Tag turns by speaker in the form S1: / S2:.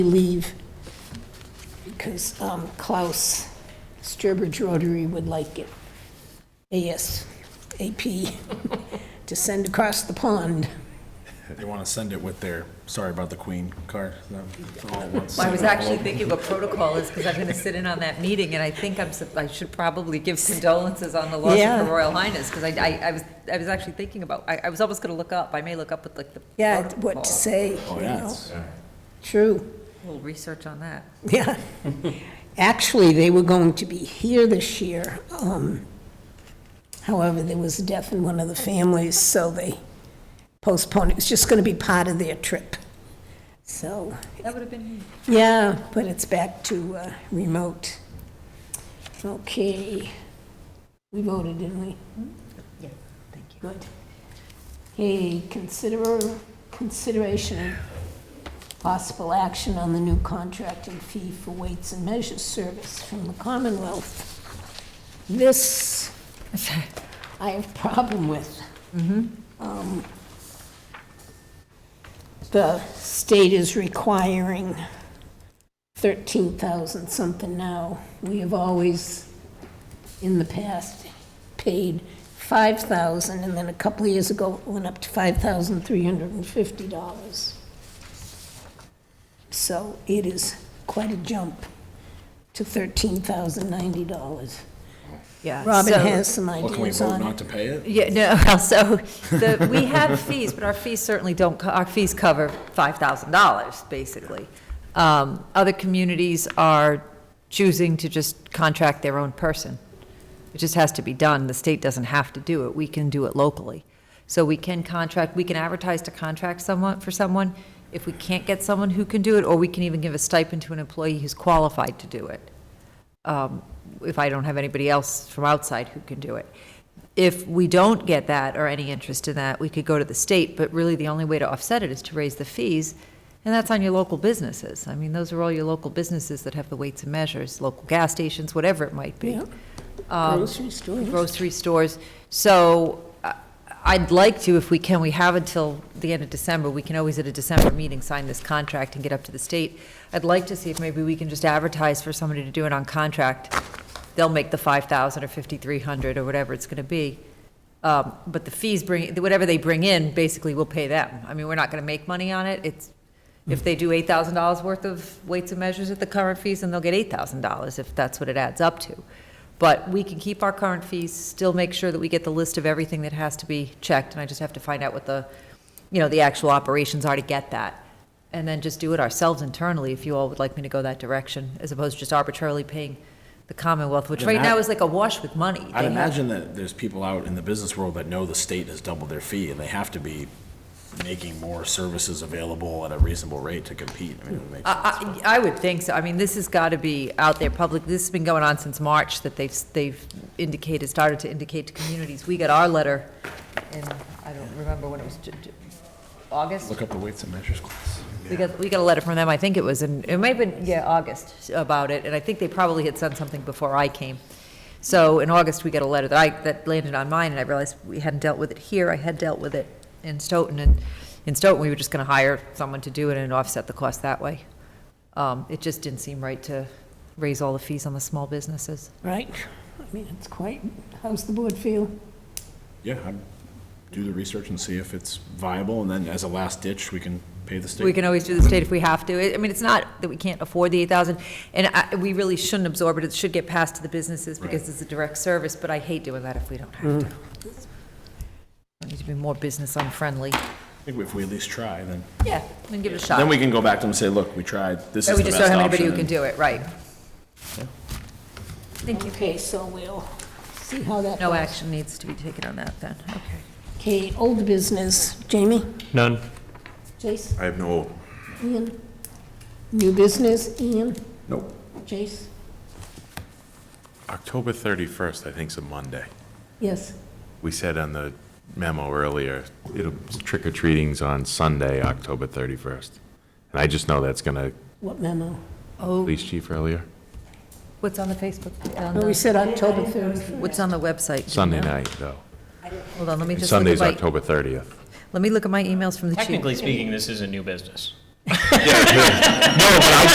S1: leave because um, Klaus Sturbridge Rotary would like it ASAP to send across the pond.
S2: They want to send it with their, sorry about the queen card.
S3: Well, I was actually thinking what protocol is, because I'm going to sit in on that meeting, and I think I'm, sup- I should probably give condolences on the loss of
S1: Yeah.
S3: Her Royal Highness, because I, I, I was, I was actually thinking about, I, I was almost going to look up, I may look up with like the
S1: Yeah, what to
S3: protocol.
S1: say,
S2: Oh,
S1: you
S2: yeah.
S1: know?
S2: it's-
S1: True.
S3: A little research on that.
S1: Yeah. Actually, they were going to be here this year. um, However, there was a death in one of the families, so they postponed. It was just going to be part of their trip. So,
S3: That would have been,
S1: yeah, but it's back to uh, remote. Okay. We voted, didn't we?
S3: yeah, thank you.
S1: Good. Okay, consider, consideration and possible action on the new contracting fee for weights and measures service from the Commonwealth. This, I have problem with.
S3: Mm-hmm.
S1: Um, The state is requiring thirteen thousand something now. We have always in the past paid 5,000, and then a couple of years ago it went up to $5,350. So it is quite a jump to $13,090.
S3: Yeah.
S1: Robin
S3: so-
S1: has some
S2: Well, can we
S1: ideas
S2: vote
S1: on
S2: not
S1: it.
S2: to pay it?
S3: Yeah, no, well, so, the, we have fees, but our fees certainly don't, co- our fees cover five thousand dollars, basically. Um, other communities are choosing to just contract their own person. It just has to be done, the state doesn't have to do it, we can do it locally. So we can contract, we can advertise to contract someone, for someone, if we can't get someone who can do it, or we can even give a stipend to an employee who's qualified to do it um, if I don't have anybody else from outside who can do it. If we don't get that or any interest in that, we could go to the state, but really the only way to offset it is to raise the fees, and that's on your local businesses. I mean, those are all your local businesses that have the weights and measures, local gas stations, whatever it might be
S1: Yeah,
S3: um,
S1: Grocery stores.
S3: Grocery stores. So I- I'd like to, if we can, we have until the end of December, we can always at a December meeting sign this contract and get up to the state. I'd like to see if maybe we can just advertise for somebody to do it on contract. They'll make the 5,000 or 5,300 or whatever it's going to be. Um, But the fees bring, whatever they bring in, basically we'll pay them. I mean, we're not going to make money on it. It's, if they do $8,000 worth of weights and measures at the current fees, then they'll get $8,000 if that's what it adds up to. But we can keep our current fees, still make sure that we get the list of everything that has to be checked, and I just have to find out what the, you know, the actual operations are to get that. And then just do it ourselves internally, if you all would like me to go that direction, as opposed to just arbitrarily paying the Commonwealth, which
S2: Then
S3: right now
S2: that-
S3: is like awash with money.
S2: I'd
S3: They have-
S2: imagine that there's people out in the business world that know the state has doubled their fee, and they have to be making more services available at a reasonable rate to compete. I mean, it makes-
S3: I, I I would think so. I mean, this has got to be out there public. This has been going on since March that they've, they've indicated, started to indicate to communities. We got our letter in, I don't remember when it was, Ju- Ju- August?
S2: Look up the weights and measures class.
S3: We got, we got a letter from them, I think it was in, it might have been, yeah, August, about it, and I think they probably had sent something before I came. So in August, we got a letter that I, that landed on mine, and I realized we hadn't dealt with it here, I had dealt with it in Stoughton, and in Stoughton, we were just gonna hire someone to do it and offset the cost that way. Um, it just didn't seem right to raise all the fees on the small businesses.
S1: Right, I mean, it's quite, how's the board feel?
S2: Yeah, I'd do the research and see if it's viable, and then as a last ditch, we can pay the state.
S3: We can always do the state if we have to. I- I mean, it's not that we can't afford the eight thousand, and I, we really shouldn't absorb it. It should get passed to the businesses because
S2: Right.
S3: it's a direct service, but I hate doing that if we don't have to. We need to be more business unfriendly.
S2: I think if we at least try, then,
S3: Yeah, and give it a shot.
S2: then we can go back to them and say, look, we tried, this
S3: But
S2: is
S3: we
S2: the
S3: just
S2: best
S3: don't
S2: option.
S3: have anybody who
S2: and-
S3: can do it, right. Thank you.
S1: Okay, so we'll see how that goes.
S3: No action needs to be taken on that then, okay.
S1: Okay, old business, Jamie,
S4: None.
S1: Jace,
S5: I have no old.
S1: Ian? New business, Ian,
S5: Nope.
S1: Jace?
S5: October 31st, I think, is a Monday.
S1: Yes,
S5: We said on the memo earlier, it'll, trick or treating's on Sunday, October 31st. And I just know that's going to,
S1: what memo?
S3: Oh,
S5: police chief earlier,
S3: what's on the Facebook, on
S1: No, we
S3: the-
S1: said October 31st.
S3: what's on the website?
S5: Sunday night, though.
S3: Hold on, let me just look at
S5: Sunday's
S3: my-
S5: October 30th.
S3: let me look at my emails from the chief.
S4: Technically speaking, this is a new business.
S5: No, but I